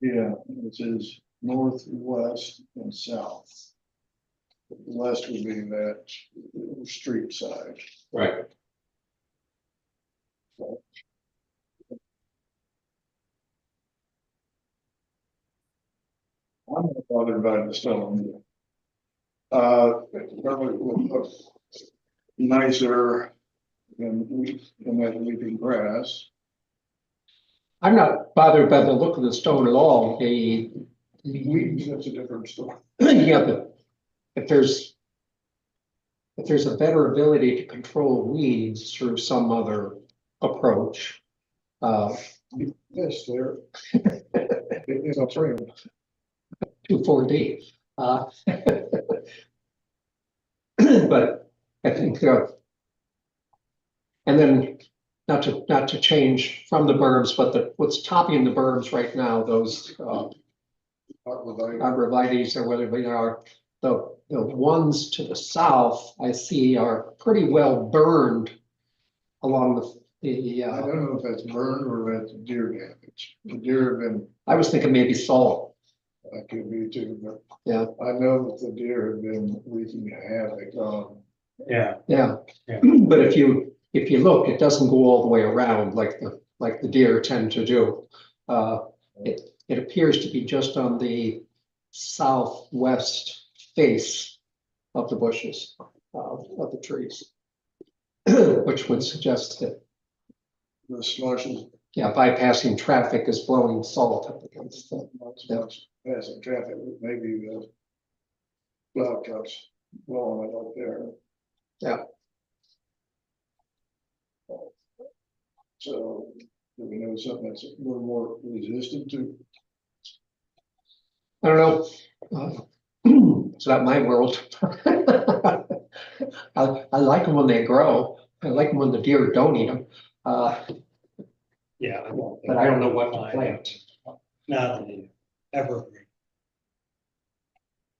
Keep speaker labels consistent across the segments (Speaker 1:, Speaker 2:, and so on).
Speaker 1: Yeah, it says north, west, and south. West would be that street side.
Speaker 2: Right.
Speaker 1: I'm not bothered by the stone. Uh, probably would look nicer than we, than that weeping grass.
Speaker 3: I'm not bothered by the look of the stone at all. The,
Speaker 1: Weeds, that's a different story.
Speaker 3: yeah, but if there's if there's a better ability to control weeds through some other approach, uh,
Speaker 1: Yes, there. It is a frame.
Speaker 3: two, four D. uh, But I think, uh, and then not to, not to change from the berms, but the, what's topping the berms right now, those, uh,
Speaker 1: Not with I-
Speaker 3: arborvitae's or whether they are, the, the ones to the south, I see are pretty well burned along the, the,
Speaker 1: I
Speaker 3: uh,
Speaker 1: don't know if that's burned or that's deer damage. The deer have been,
Speaker 3: I was thinking maybe salt.
Speaker 1: that could be too, but.
Speaker 3: Yeah.
Speaker 1: I know that the deer have been wreaking havoc on,
Speaker 2: Yeah,
Speaker 3: Yeah.
Speaker 2: Yeah.
Speaker 3: But if you, if you look, it doesn't go all the way around like the, like the deer tend to do. Uh, it, it appears to be just on the southwest face of the bushes, of, of the trees. Which would suggest that
Speaker 1: the slushes,
Speaker 3: Yeah, bypassing traffic is blowing salt up against them.
Speaker 1: lots of us passing traffic, maybe the. Plow trucks blowing it up there. So, do we know something that's a little more resistant to?
Speaker 3: I don't know. uh, It's not my world. I, I like them when they grow. I like them when the deer don't eat them. Uh,
Speaker 2: yeah.
Speaker 3: but I don't know what to plant.
Speaker 2: Not an evergreen.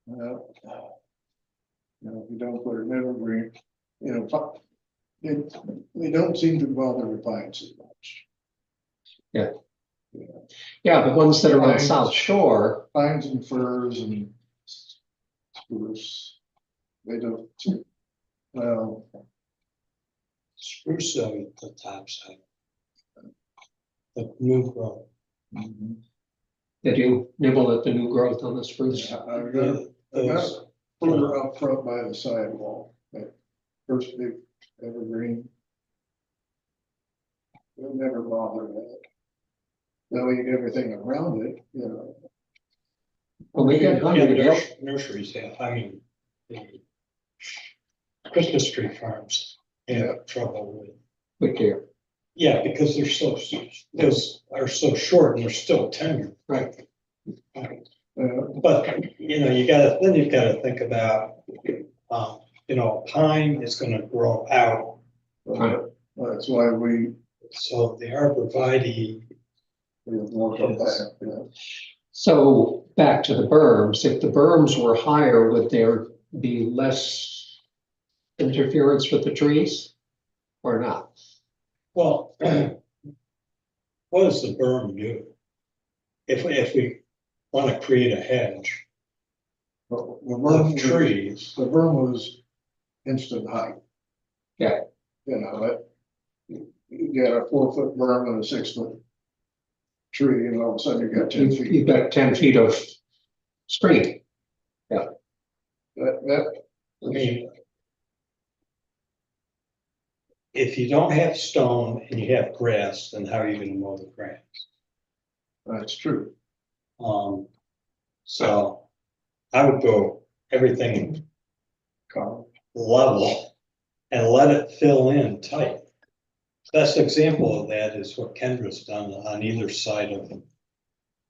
Speaker 1: You know, You know, if you don't put an evergreen, you know, fi- they, they don't seem to bother the pines as much.
Speaker 3: Yeah, the ones that are on
Speaker 1: Pines.
Speaker 3: South Shore,
Speaker 1: Pines and firs and spruce, they don't. seem- Well,
Speaker 2: Spruce though, the top side. The new growth.
Speaker 1: mhm.
Speaker 3: they do nibble at the new growth on the spruce.
Speaker 1: I- I got
Speaker 2: The- those-
Speaker 1: further up front by the sidewall, that first big evergreen. They'll never bother that. They'll eat everything around it, you know.
Speaker 3: When we get
Speaker 2: Yeah,
Speaker 3: hungry, they'll,
Speaker 2: nurs- Nurseries have, I mean. the Christmas tree farms have trouble with,
Speaker 3: with deer.
Speaker 2: yeah, because they're so, s- those are so short and they're still tender.
Speaker 3: Right.
Speaker 1: Uh,
Speaker 2: But, you know, you gotta, then you've gotta think about, um, you know, pine is gonna grow out
Speaker 3: Right.
Speaker 1: That's why we,
Speaker 2: So the arborvitae,
Speaker 1: we have more of that, you know.
Speaker 3: So back to the berms, if the berms were higher, would there be less interference with the trees? Or not?
Speaker 2: well, what does the berm do? If, if we want to create a hedge
Speaker 1: But The
Speaker 2: of
Speaker 1: berm, was-
Speaker 2: trees,
Speaker 1: the berm was instant height.
Speaker 3: Yeah.
Speaker 1: You know, that, you you got a four foot berm and a six foot tree, and all of a sudden you got ten
Speaker 3: You've,
Speaker 1: feet.
Speaker 3: you've got ten feet of screen.
Speaker 1: That, that,
Speaker 2: I mean, if you don't have stone and you have grass, then how are you going to mow the grass?
Speaker 1: that's true.
Speaker 2: Um, so I would go everything
Speaker 1: Colin.
Speaker 2: level and let it fill in tight. Best example of that is what Kendra's done on either side of,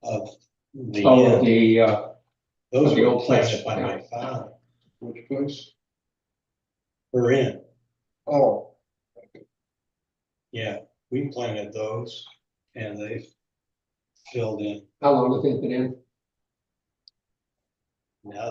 Speaker 2: of the
Speaker 3: Oh,
Speaker 2: end.
Speaker 3: the, uh,
Speaker 2: Those
Speaker 3: the
Speaker 2: were
Speaker 3: old place,
Speaker 2: planted by
Speaker 3: yeah.
Speaker 2: my father,
Speaker 1: Which place?
Speaker 2: we're in,
Speaker 1: Oh,
Speaker 2: yeah, we planted those and they filled in.
Speaker 3: how long have they been in?
Speaker 2: Now